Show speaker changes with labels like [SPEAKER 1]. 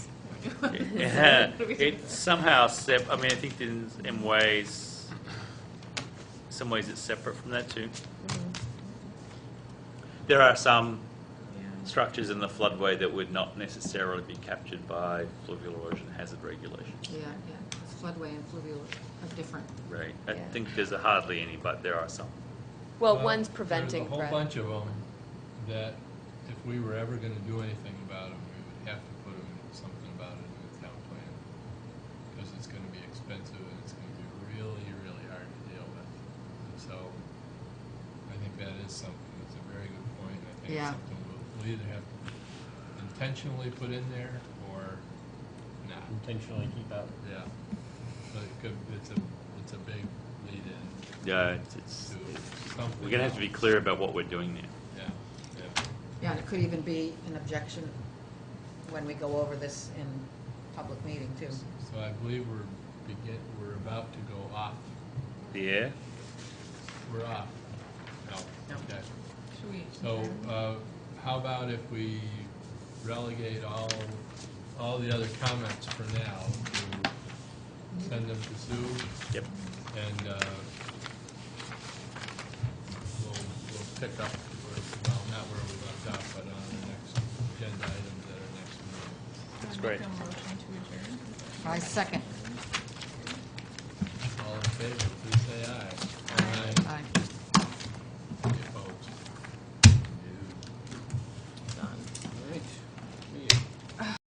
[SPEAKER 1] It somehow sep, I mean, I think in, in ways, some ways it's separate from that too. There are some structures in the floodway that would not necessarily be captured by fluvial erosion hazard regulation.
[SPEAKER 2] Yeah, yeah, It's floodway and fluvial are different.
[SPEAKER 1] Right, I
[SPEAKER 3] Yeah.
[SPEAKER 1] think there's hardly any, but there are some.
[SPEAKER 3] Well,
[SPEAKER 4] Uh,
[SPEAKER 3] one's preventing
[SPEAKER 4] There's a
[SPEAKER 3] threat.
[SPEAKER 4] whole bunch of them that if we were ever going to do anything about them, we would have to put 'em- something about it in the town plan. Because it's going to be expensive and it's going to be really, really hard to deal with. And so I think that is something, that's a very good point. I think
[SPEAKER 2] Yeah.
[SPEAKER 4] it's something we'll we'll either have to intentionally put in there or not.
[SPEAKER 5] intentionally keep out.
[SPEAKER 4] Yeah. But it could, it's a, it's a big lead in
[SPEAKER 1] Yeah, it's- it's,
[SPEAKER 4] to something.
[SPEAKER 1] we're gonna have to be
[SPEAKER 4] else.
[SPEAKER 1] clear about what we're doing there.
[SPEAKER 4] Yeah, yeah.
[SPEAKER 2] Yeah, and it could even be an objection when we go over this in public meeting too.
[SPEAKER 4] So I believe we're begin, we're about to go off,
[SPEAKER 1] Yeah.
[SPEAKER 4] we're off. No,
[SPEAKER 2] No.
[SPEAKER 4] okay.
[SPEAKER 6] Should we?
[SPEAKER 4] So, uh, how about if we relegate all, all the other comments for now to send them to Sue
[SPEAKER 1] Yep.
[SPEAKER 4] and, uh, we'll, we'll pick up where, well, not where we left off, but on the next agenda items at our next meeting.
[SPEAKER 1] That's great.
[SPEAKER 6] Make a motion to adjourn.
[SPEAKER 2] I second.